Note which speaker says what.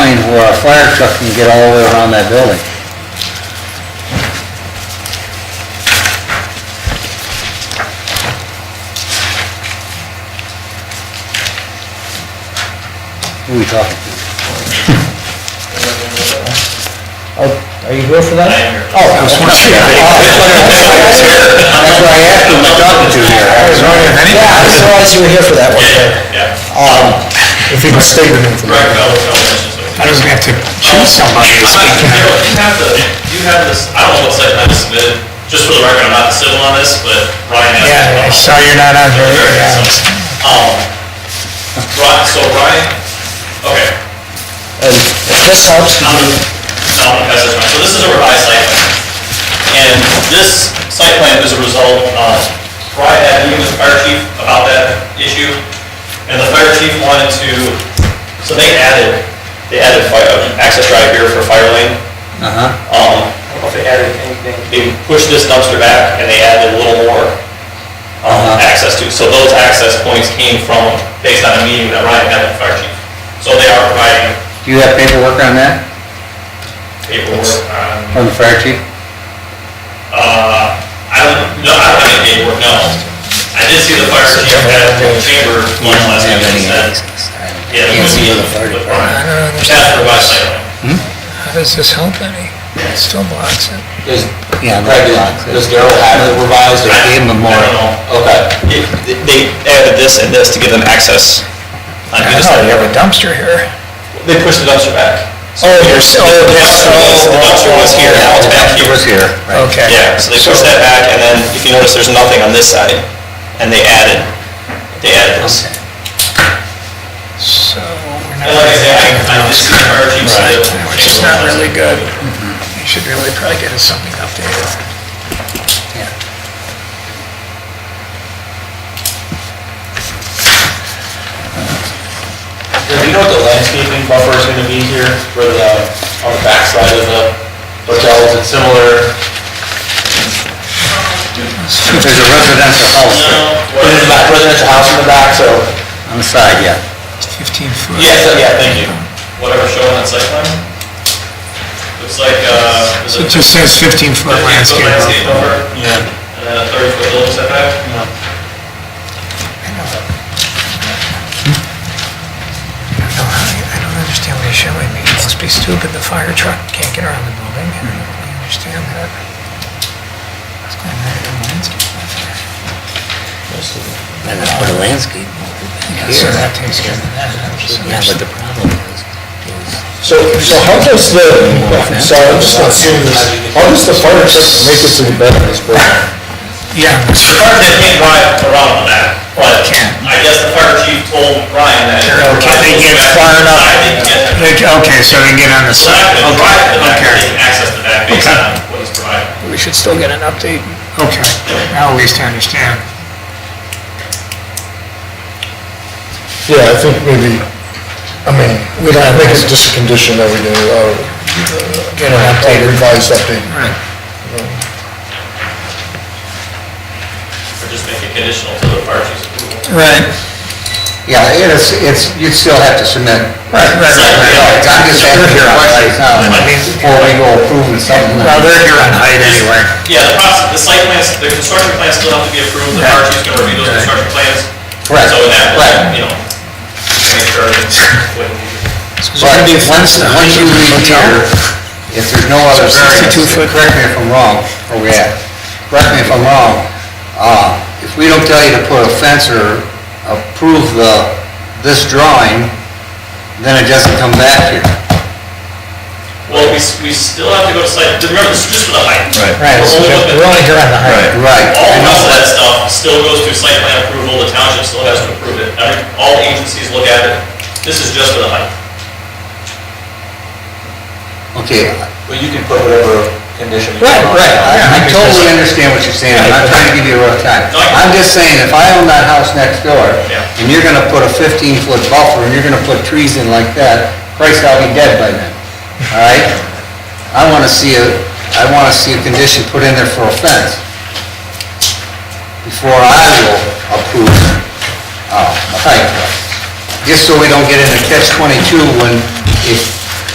Speaker 1: where a fire truck can get all the way around that building. Who are we talking to?
Speaker 2: Oh, are you here for that? Oh, I was
Speaker 1: Oh, That's what I asked who am I talking to here. I was wondering if
Speaker 2: Yeah, I
Speaker 1: anybody-
Speaker 2: realized you were here for that one, but,
Speaker 3: Yeah,
Speaker 2: um,
Speaker 4: If he was stated in the...
Speaker 3: Greg Bell, Bell mentions it.
Speaker 4: I was gonna have to choose somebody to
Speaker 3: I'm not,
Speaker 4: speak.
Speaker 3: you know, you have the, you have this, I don't know what site plan is submitted, just for the record, I'm not the civil on this, but Ryan has.
Speaker 4: Yeah, I saw you're not on there,
Speaker 3: Okay,
Speaker 4: yeah.
Speaker 3: so, Um, Ryan, so Ryan, okay,
Speaker 2: and if this helps,
Speaker 3: I'm, I'm gonna pass this around, so this is a revised site plan. And this site plan is a result of, Ryan had a meeting with the fire chief about that issue, and the fire chief wanted to, so they added, they added fire, access drive here for fire lane.
Speaker 1: Uh-huh.
Speaker 3: Um, they added anything. They pushed this dumpster back and they added a little more, um,
Speaker 1: Uh-huh.
Speaker 3: access to, so those access points came from, based on a meeting that Ryan had with the fire chief. So they are providing
Speaker 1: Do you have paperwork on that,
Speaker 3: paperwork on,
Speaker 1: from the fire chief?
Speaker 3: uh, I don't, no, I don't have any paperwork, no. I did see the fire chief at the chamber one last
Speaker 1: Yeah,
Speaker 3: week, he said, yeah.
Speaker 1: Can't
Speaker 3: with-
Speaker 1: see the fire
Speaker 3: with
Speaker 1: department.
Speaker 3: Ryan.
Speaker 5: I don't
Speaker 3: That's
Speaker 5: understand.
Speaker 3: for my site plan.
Speaker 5: How does this help any? It still blocks it.
Speaker 6: Does,
Speaker 1: Yeah,
Speaker 6: Greg,
Speaker 1: that's-
Speaker 6: does Daryl have the revised?
Speaker 1: They gave him a
Speaker 3: I
Speaker 1: more.
Speaker 3: don't know.
Speaker 6: Okay.
Speaker 3: It- They added this and this to give them access. on
Speaker 5: I
Speaker 3: who to
Speaker 5: know,
Speaker 3: stay.
Speaker 5: you have a dumpster here.
Speaker 3: They pushed the dumpster back.
Speaker 5: Oh, there's, oh,
Speaker 3: The dumpster was- the dumpster was here, now it's back
Speaker 1: It
Speaker 3: here.
Speaker 1: was here, right.
Speaker 5: Okay.
Speaker 3: Yeah, so they pushed that back, and then if you notice, there's nothing on this side, and they added, they added this.
Speaker 5: So, we're
Speaker 3: And like I
Speaker 5: not,
Speaker 3: said, I, I just see the fire chief's.
Speaker 5: which is not really good.
Speaker 3: Mm-hmm.
Speaker 5: You should really probably get us something updated.
Speaker 6: Do you know what the landscaping buffer is gonna be here for the, on the backside of the hotel? Is it similar?
Speaker 1: There's a residential house
Speaker 6: There's a back- residential house in the back, so.
Speaker 1: on the side, yeah.
Speaker 5: 15 foot.
Speaker 6: Yes, uh, yeah, thank you.
Speaker 3: Whatever shown on site plan. Looks like, uh. is
Speaker 5: So
Speaker 3: it
Speaker 5: it just says 15 foot
Speaker 3: 15
Speaker 5: landscape.
Speaker 3: landscape
Speaker 5: buffer.
Speaker 3: buffer, and
Speaker 5: Uh,
Speaker 3: then a thirty foot building setback.
Speaker 5: I don't know how you- I don't understand what he's showing me. It must be stupid, the fire truck can't get around the building. I don't really understand that. What's going on with the landscape buffer?
Speaker 1: And it's for the landscape.
Speaker 5: So that takes care of that. So
Speaker 1: Yeah,
Speaker 5: there's-
Speaker 1: but the problem is,
Speaker 4: So, so how does the, so I'm just gonna assume this, how does the fire truck make it to the back of this building?
Speaker 5: Yeah,
Speaker 3: The fire they can't drive around on that, but
Speaker 5: Can't.
Speaker 3: I guess the fire chief told Ryan that.
Speaker 5: Okay, they get far enough.
Speaker 3: I didn't get
Speaker 5: Like, Okay, so they get on the
Speaker 3: So I
Speaker 5: side.
Speaker 3: could drive to the back,
Speaker 5: Okay,
Speaker 3: they can access the back based
Speaker 5: Okay.
Speaker 3: on what he's providing.
Speaker 5: We should still get an update. Okay, now at least I understand.
Speaker 4: Yeah, I think maybe, I mean, we don't make it just a condition that we do, uh,
Speaker 5: Get an
Speaker 4: a
Speaker 5: update.
Speaker 4: revised update.
Speaker 5: Right.
Speaker 3: Or just make it conditional to the fire chief's approval.
Speaker 5: Right.
Speaker 1: yeah, it's, it's, you'd still have to submit.
Speaker 5: Right, right,
Speaker 1: I'm
Speaker 5: right.
Speaker 1: just asking your question, uh, before we go approving something.
Speaker 5: Well, they're here on height anyway.
Speaker 3: Yeah, the process, the site plans, the construction plans still have to be approved, the fire chief's gonna review those construction plans.
Speaker 1: Correct,
Speaker 3: So in that,
Speaker 1: right.
Speaker 3: way, you know, make sure it's, when-
Speaker 1: But once, once you leave here, if there's no other variance,
Speaker 5: 62 foot.
Speaker 1: correct me if I'm wrong, where we at? Correct me if I'm wrong, uh, if we don't tell you to put a fence or approve the, this drawing, then it doesn't come back here.
Speaker 3: well, we, s- we still have to go to site, remember, this is just for the height.
Speaker 1: Right. Right,
Speaker 3: We're
Speaker 1: this
Speaker 3: only looking-
Speaker 2: we're only here on the height.
Speaker 1: Right,
Speaker 3: All
Speaker 1: I
Speaker 3: the
Speaker 1: know
Speaker 3: rest of that
Speaker 1: that.
Speaker 3: stuff still goes through site plan approval, the township still has to approve it, Every- all agencies look at it, this is just for the height.
Speaker 1: Okay,
Speaker 6: But you can put whatever condition you
Speaker 2: Right,
Speaker 6: want.
Speaker 2: right,
Speaker 1: I I totally understand what you're saying, I'm not trying to give you a rough time.
Speaker 3: No, I-
Speaker 1: I'm just saying, if I own that house next door,
Speaker 3: Yeah.
Speaker 1: and you're gonna put a fifteen-foot buffer, and you're gonna put trees in like that, Christ, I'll be dead by then, all right? I wanna see a, I wanna see a condition put in there for a fence before I will approve, uh, a height. Just so we don't get into catch twenty-two when, if